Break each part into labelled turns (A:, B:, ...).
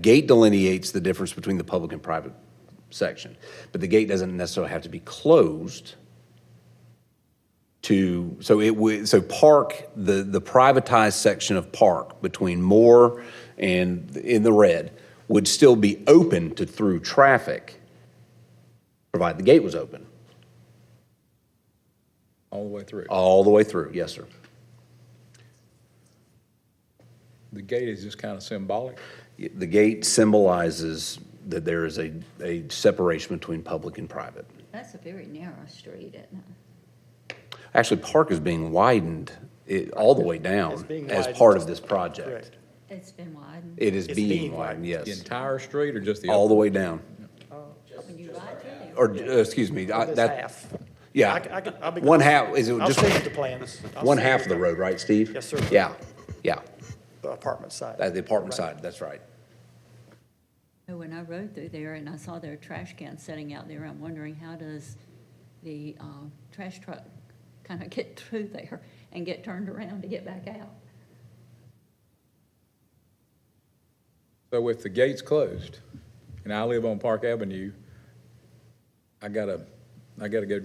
A: Gate delineates the difference between the public and private section, but the gate doesn't necessarily have to be closed to, so it would, so Park, the, the privatized section of Park between Moore and in the red would still be open to through traffic, provided the gate was open,
B: all the way through.
A: all the way through. Yes, sir.
B: The gate is just kind of symbolic.
A: The gate symbolizes that there is a, a separation between public and private.
C: That's a very narrow street, isn't it?
A: Actually, Park is being widened it- all the way
D: It's
A: down
D: being
A: as
D: widened.
A: part of this project.
D: Correct.
C: It's been widened.
A: It is
D: It's
A: being
D: being
A: widened,
B: The
A: yes,
B: entire street or just the?
A: all the way down.
C: When you ride through there,
A: Or, uh, excuse me, I-
D: This
A: that,
D: half.
A: yeah.
D: I c- I could- I'll be-
A: One half, is it
D: I'll
A: just
D: send you the plans. I'll
A: one
D: send
A: half of
D: you
A: the road, right, Steve?
D: Yes, sir.
A: Yeah, yeah,
D: the Apartment side.
A: Uh, the apartment
D: Right.
A: side, that's right.
C: Oh, when I rode through there and I saw their trash can sitting out there, I'm wondering how does the, um, trash truck kind of get through there and get turned around to get back out?
B: So if the gate's closed and I live on Park Avenue, I gotta, I gotta go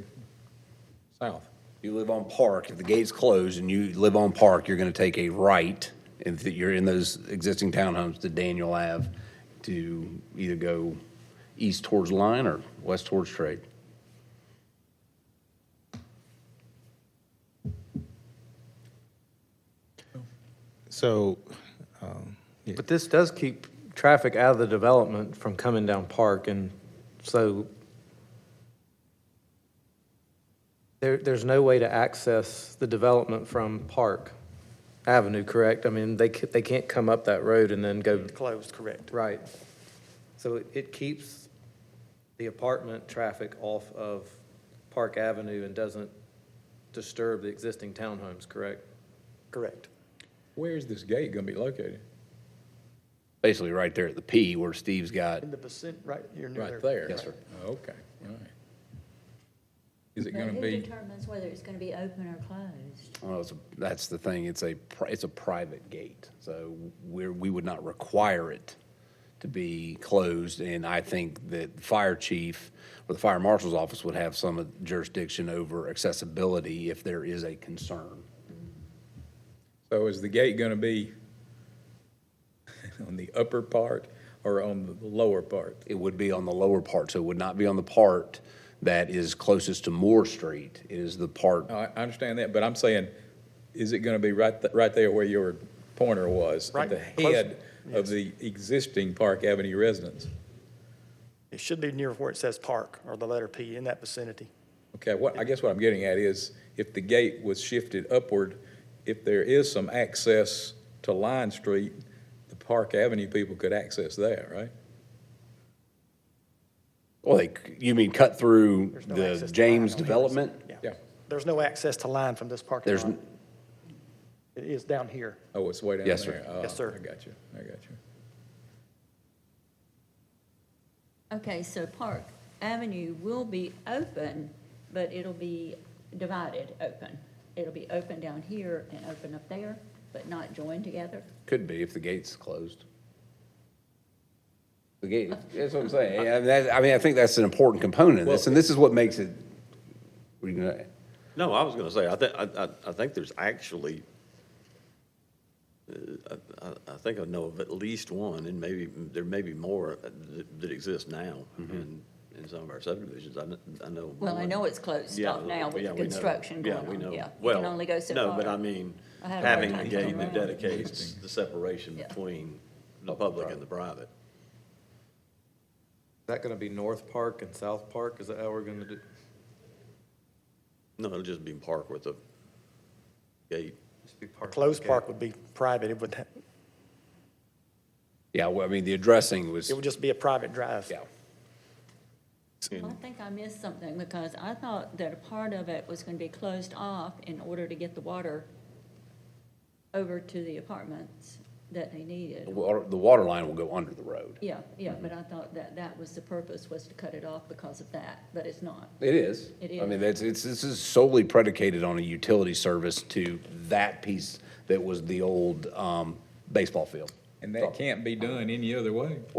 B: south.
A: You live on Park, if the gate's closed and you live on Park, you're gonna take a right, if you're in those existing townhomes to Daniel Ave, to either go east towards Line or west towards Trade.
E: So,
F: But this does keep traffic out of the development from coming down Park, and so there, there's no way to access the development from Park Avenue, correct? I mean, they, ca- they can't come up that road and then go
D: Closed, correct.
F: right. So it- it keeps the apartment traffic off of Park Avenue and doesn't disturb the existing townhomes, correct?
D: Correct.
B: Where is this gate gonna be located?
A: Basically, right there at the P where Steve's got,
D: In the percent, right, you're near there.
B: Right there?
A: Yes, sir.
B: Okay, all right. Is it
C: But
B: gonna
C: who
B: be,
C: determines whether it's gonna be open or closed?
A: well, it's, a- that's the thing, it's a, pri- it's a private gate. So we're, we would not require it to be closed. And I think that the fire chief or the fire marshal's office would have some jurisdiction over accessibility if there is a concern.
B: so is the gate gonna be on the upper part or on the lower part?
A: It would be on the lower part, so it would not be on the part that is closest to Moore Street. It is the part, oh,
B: No, I, I understand that, but I'm saying, is it gonna be right, th- right there where your pointer was?
D: Right,
B: At the
D: close.
B: head of
D: Yes.
B: the existing Park Avenue residence?
D: It should be near where it says park or the letter P in that vicinity.
B: Okay, what, I guess what I'm getting at is, if the gate was shifted upward, if there is some access to Line Street, the Park Avenue people could access that, right?
A: like, you mean cut through
D: There's no access
A: the
D: to line
A: James
D: on the other
A: development?
D: side.
B: Yeah.
D: There's no access to line from this parking
A: There's
D: lot. It is down here.
B: Oh, it's way down there?
A: Yes, sir.
B: Oh,
D: Yes, sir.
B: I got you, I got you.
C: Okay, so Park Avenue will be open, but it'll be divided open. It'll be open down here and open up there, but not joined together.
A: Could be if the gate's closed. The gate, that's what I'm saying. I mean, that- I mean, I think that's an important component of this, and this is what makes it, what are you gonna-
G: No, I was going to say, I think, I, I- I think there's actually, uh, I, I- I think I know of at least one, and maybe, there may be more uh, that, that exist now in, in some of our subdivisions. I, kn- I know.
C: Well, I
G: one.
C: know it's closed
G: Yeah,
C: off now with
G: yeah,
C: the
G: we know.
C: construction going on, yeah.
G: Yeah, we know.
C: You
G: Well,
C: can only go so
G: no,
C: far.
G: but I mean,
C: I had a hard
G: having
C: time
G: a
C: getting
G: gate that
C: around.
G: dedicates the separation
C: Yeah.
G: between the public and the private.
F: Is that gonna be North Park and South Park? Is that how we're gonna do?
G: No, it'll just be park with a gate.
F: Just be park.
D: Closed
F: okay.
D: park would be private. It would, ha-
A: yeah, well, I mean, the addressing was,
D: it would just be a private drive.
A: yeah.
C: Well, I think I missed something because I thought that a part of it was gonna be closed off in order to get the water over to the apartments that they
A: The
C: needed.
A: water, the water line will go under the road.
C: Yeah, yeah, but I thought that that was the purpose, was to cut it off because of that, but it's not.
A: It is.
C: It
A: I mean,
C: is.
A: that's, it's, this is solely predicated on a utility service to that piece that was the old, um, baseball field.
B: And that can't be done any other way.